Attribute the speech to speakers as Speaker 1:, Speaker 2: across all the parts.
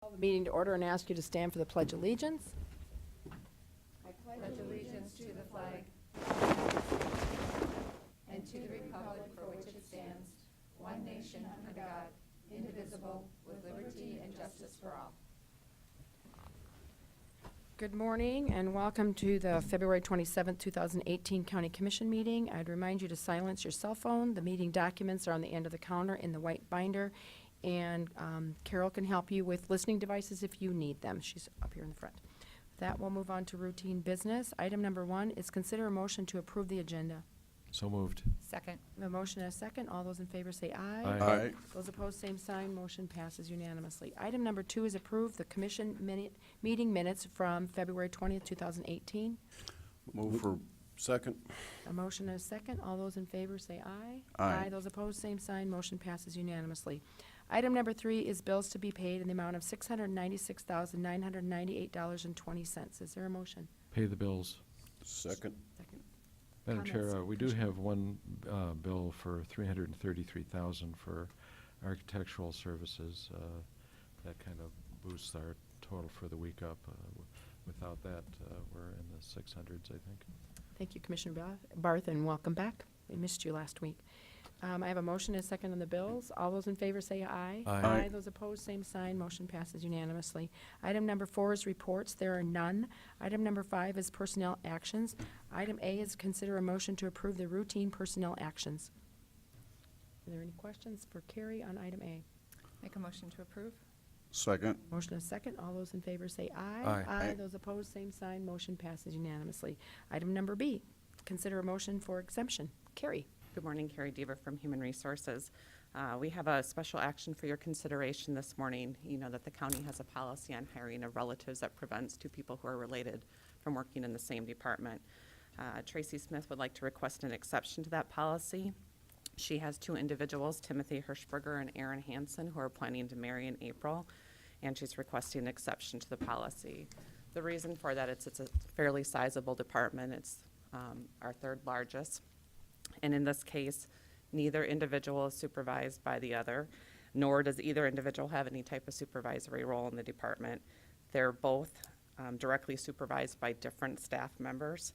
Speaker 1: Call the meeting to order and ask you to stand for the Pledge of Allegiance. Good morning and welcome to the February 27, 2018 County Commission meeting. I'd remind you to silence your cell phone. The meeting documents are on the end of the counter in the white binder. And um, Carol can help you with listening devices if you need them. She's up here in the front. With That will move on to routine business. Item number one is consider a motion to approve the agenda.
Speaker 2: So moved.
Speaker 3: Second.
Speaker 1: A motion and a second. All those in favor say aye.
Speaker 2: Aye.
Speaker 1: Those opposed, same sign. Motion passes unanimously. Item number two is approve the commission minute, meeting minutes from February 20th, 2018.
Speaker 4: Move for second.
Speaker 1: A motion and a second. All those in favor say aye.
Speaker 4: Aye.
Speaker 1: Those opposed, same sign. Motion passes unanimously. Item number three is bills to be paid in the amount of $696,998.20. Is there a motion?
Speaker 2: Pay the bills.
Speaker 4: Second.
Speaker 1: Second.
Speaker 2: Madam
Speaker 1: Comments,
Speaker 2: Chair, uh, we do
Speaker 1: Commissioner?
Speaker 2: have one uh, bill for three hundred and thirty-three thousand for architectural services. uh, That kind of boosts our total for the week up. Uh, w- Without that, uh, we're in the six hundreds, I think.
Speaker 1: Thank you, Commissioner Ba- Barth, and welcome back. We missed you last week. Um, I have a motion and a second on the bills. All those in favor say aye.
Speaker 2: Aye.
Speaker 4: Aye.
Speaker 1: Those opposed, same sign. Motion passes unanimously. Item number four is reports. There are none. Item number five is personnel actions. Item A is consider a motion to approve the routine personnel actions. Are there any questions for Carrie on item A?
Speaker 3: Make a motion to approve?
Speaker 4: Second.
Speaker 1: Motion is second. All those in favor say aye.
Speaker 2: Aye.
Speaker 4: Aye.
Speaker 1: Those opposed, same sign. Motion passes unanimously. Item number B, consider a motion for exemption. Carrie?
Speaker 5: Good morning, Carrie Dever from Human Resources. Uh, We have a special action for your consideration this morning. You know that the county has a policy on hiring of relatives that prevents two people who are related from working in the same department. Uh, Tracy Smith would like to request an exception to that policy. She has two individuals, Timothy Hirschberger and Aaron Hansen, who are planning to marry in April, and she's requesting an exception to the policy. The reason for that, it's, it's a fairly sizable department. It's um, our third largest. And in this case, neither individual is supervised by the other, nor does either individual have any type of supervisory role in the department. They're both um, directly supervised by different staff members.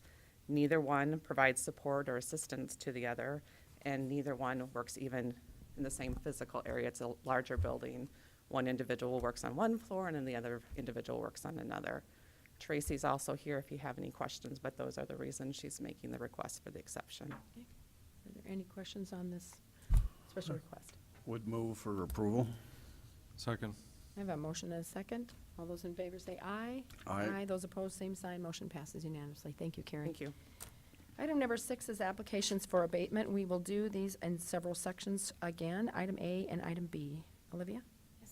Speaker 5: Neither one provides support or assistance to the other, and neither one works even in the same physical area. It's a larger building. One individual works on one floor, and then the other individual works on another. Tracy's also here if you have any questions, but those are the reasons she's making the request for the exception.
Speaker 1: Are there any questions on this special request?
Speaker 4: Would move for approval.
Speaker 2: Second.
Speaker 1: I have a motion and a second. All those in favor say aye.
Speaker 4: Aye.
Speaker 1: Those opposed, same sign. Motion passes unanimously. Thank you, Carrie.
Speaker 5: Thank you.
Speaker 1: Item number six is applications for abatement. We will do these in several sections again, item A and item B. Olivia?
Speaker 6: Yes.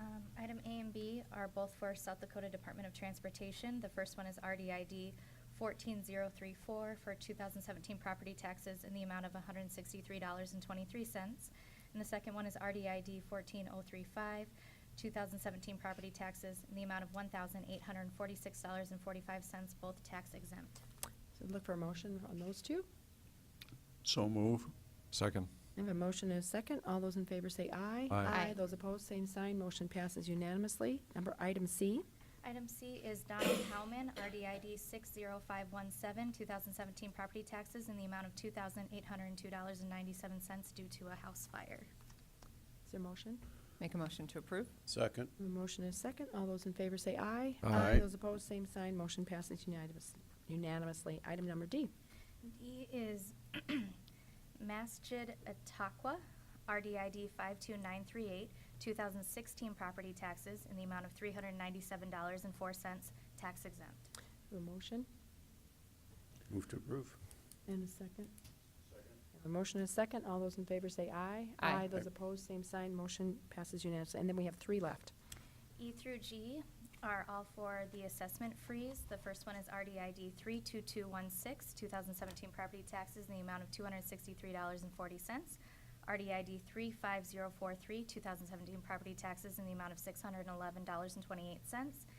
Speaker 6: Um, Item A and B are both for South Dakota Department of Transportation. The first one is RDID 14034 for 2017 property taxes in the amount of $163.23. And the second one is RDID 14035, 2017 property taxes in the amount of $1,846.45, both tax exempt.
Speaker 1: So look for a motion on those two.
Speaker 4: So move.
Speaker 2: Second.
Speaker 1: I have a motion and a second. All those in favor say aye.
Speaker 2: Aye.
Speaker 6: Aye.
Speaker 1: Those opposed, same sign. Motion passes unanimously. Number item C.
Speaker 6: Item C is Donald Howman, RDID 60517, 2017 property taxes in the amount of $2,802.97 due to a house fire.
Speaker 1: Is there a motion?
Speaker 3: Make a motion to approve?
Speaker 4: Second.
Speaker 1: A motion and a second. All those in favor say aye.
Speaker 4: Aye. Aye.
Speaker 1: Those opposed, same sign. Motion passes unanimous- unanimously. Item number D.
Speaker 6: D is Masjid Ataqua, RDID 52938, 2016 property taxes in the amount of $397.04, tax exempt.
Speaker 1: A motion
Speaker 4: Move to approve.
Speaker 1: and a second. A motion and a second. All those in favor say aye.
Speaker 3: Aye.
Speaker 1: Those opposed, same sign. Motion passes unanimously. And then we have three left.
Speaker 6: E through G are all for the assessment freeze. The first one is RDID 32216, 2017 property taxes in the amount of $263.40. RDID 35043, 2017 property taxes in the amount of $611.28.